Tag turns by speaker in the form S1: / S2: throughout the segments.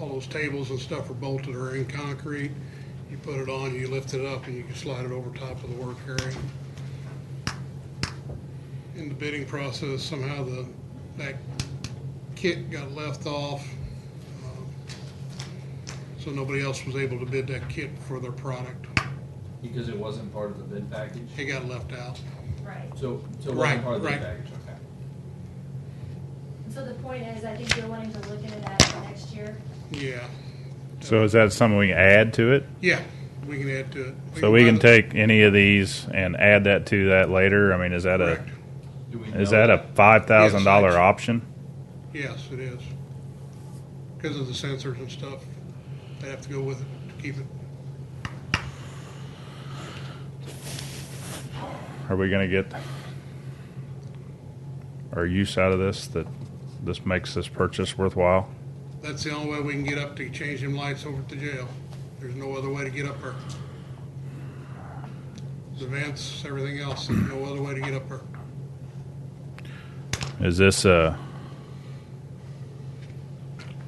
S1: those tables and stuff are bolted or in concrete. You put it on, you lift it up, and you can slide it over top of the work area. In the bidding process, somehow the, that kit got left off. um, So nobody else was able to bid that kit for their product.
S2: Because it wasn't part of the bid package?
S1: It got left out.
S3: Right.
S2: So, so it
S1: Right,
S2: wasn't part of the
S1: right.
S2: bid package, okay.
S3: So the point is, I think you're wanting to look into that for next year.
S1: Yeah,
S4: So is that something we can add to it?
S1: yeah, we can add to it.
S4: So we can
S1: buy the-
S4: take any of these and add that to that later? I mean, is that uh, a,
S1: Correct.
S2: Do we
S4: is
S2: know
S4: that a five thousand
S1: Yes.
S4: dollar option?
S1: Yes, it is. Because of the sensors and stuff, they have to go with it to keep it.
S4: Are we gonna get our use out of this, that this makes this purchase worthwhile?
S1: That's the only way we can get up to change them lights over at the jail. There's no other way to get up there. The vents, everything else, there's no other way to get up there.
S4: Is this a,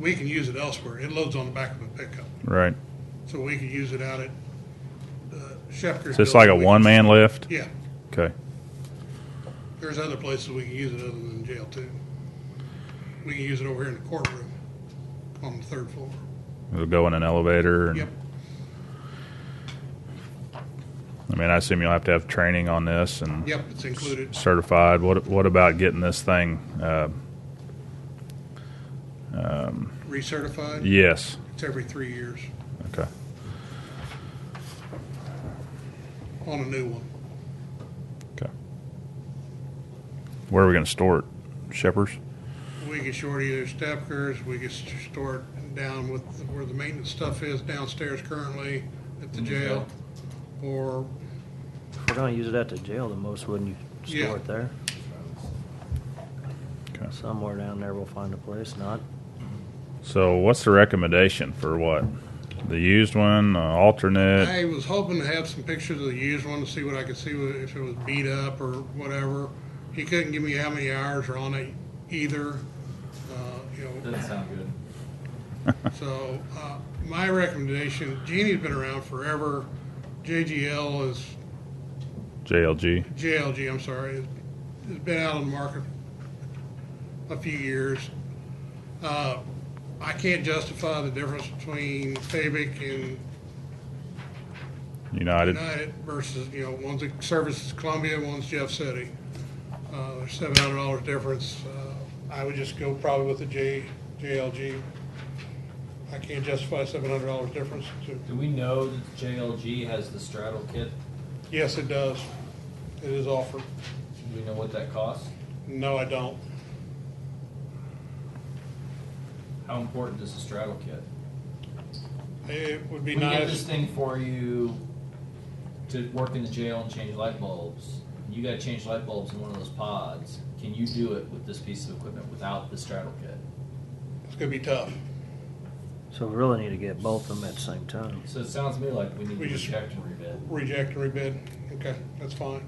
S1: We can use it elsewhere. It loads on the back of a pickup,
S4: right,
S1: so we can use it out at uh, Schefter's.
S4: is this like a
S1: building. We-
S4: one-man lift?
S1: Yeah,
S4: Okay.
S1: there's other places we can use it other than jail too. We can use it over here in the courtroom on the third floor.
S4: It'll go in an elevator and?
S1: Yep.
S4: I mean, I assume you'll have to have training on this and
S1: Yep, it's included.
S4: certified. What what about getting this thing? Uh,
S1: Recertified,
S4: yes.
S1: it's every three years
S4: Okay.
S1: on a new one.
S4: Okay. Where are we going to store it? Shepherd's.
S1: We get short either Stepkers, we get stored down with where the maintenance stuff is downstairs currently at the
S2: In the
S1: jail.
S2: jail.
S1: Or,
S5: If We're gonna use it at the jail the most, wouldn't you?
S1: Yeah.
S5: Store it there.
S4: Okay.
S5: Somewhere down there we'll find a place, not,
S4: So, what's the recommendation for what? The used one, uh, alternate.
S1: I was hoping to have some pictures of the used one to see what I could see if it was beat up or whatever. He couldn't give me how many hours are on it either, uh, you know.
S2: Doesn't sound good.
S1: So, uh, my recommendation, Genie's been around forever. JGL is
S4: JLG.
S1: JLG, I'm sorry, has has been out on the market a few years. Uh, I can't justify the difference between Fabic and
S4: United.
S1: United versus, you know, one's a service is Columbia, one's Jeff City. Uh, there's seven hundred dollars difference. Uh, I would just go probably with the J, JLG. I can't justify seven hundred dollars difference. to-
S2: Do we know that JLG has the straddle kit?
S1: Yes, it does. It is offered.
S2: Do we know what that costs?
S1: No, I don't.
S2: How important is the straddle kit?
S1: It would
S2: We
S1: be
S2: get
S1: nice.
S2: this thing for you to work in the jail and change light bulbs. You gotta change light bulbs in one of those pods. Can you do it with this piece of equipment without the straddle kit?
S1: It's gonna be tough.
S5: so we really need to get both of them at the same time.
S2: So it sounds to me like we need
S1: We
S2: to
S1: just-
S2: reject and rebid
S1: Reject and rebid. Okay, that's fine.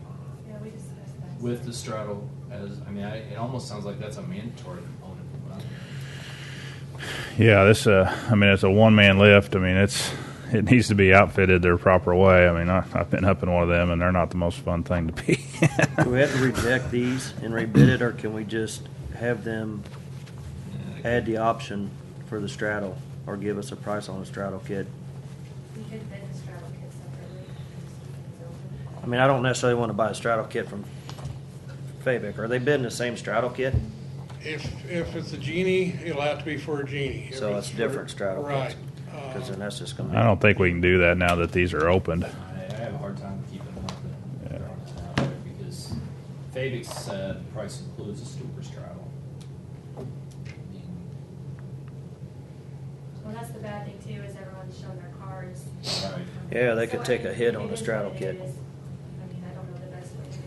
S3: Yeah, we discussed that.
S2: with the straddle as, I mean, I, it almost sounds like that's a mandatory component. from what I'm hearing.
S4: Yeah. This. Uh, I mean, it's a one-man lift. I mean, it's it needs to be outfitted their proper way. I mean, I, I've been up in one of them, and they're not the most fun thing to be.
S5: Do we have to reject these and rebid it, or can we just have them add the option for the straddle, or give us a price on the straddle kit?
S3: We could bid the straddle kit separately.
S5: I mean, I don't necessarily wanna buy a straddle kit from Fabic. Are they bidding the same straddle kit?
S1: If, if it's a genie, it'll have to be for a genie. If
S5: So it's
S1: for-
S5: different straddle
S1: Right. uh,
S5: kits. Cause then that's just gonna be.
S4: I don't think we can do that now that these are opened.
S2: I, I have a hard time keeping up with
S4: Yeah.
S2: it out there because Fabic said the price includes a super straddle. I mean,
S3: Well, that's the bad thing too, is everyone's showing their cards.
S2: Right.
S5: Yeah, they could
S3: So, I
S5: take a
S3: mean,
S5: hit
S3: it
S5: on the
S3: is
S5: straddle
S3: what it
S5: kit.
S3: is. I mean, I don't know the best way to do it.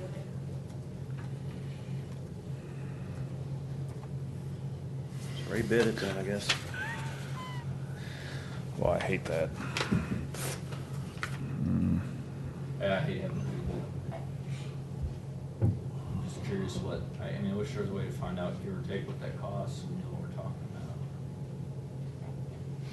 S5: Rebid it then, I guess.
S4: Well, I hate that.
S2: Yeah, I hate having people. I'm just curious what, I, I mean, I wish there was a way to find out give or take what that costs, you know,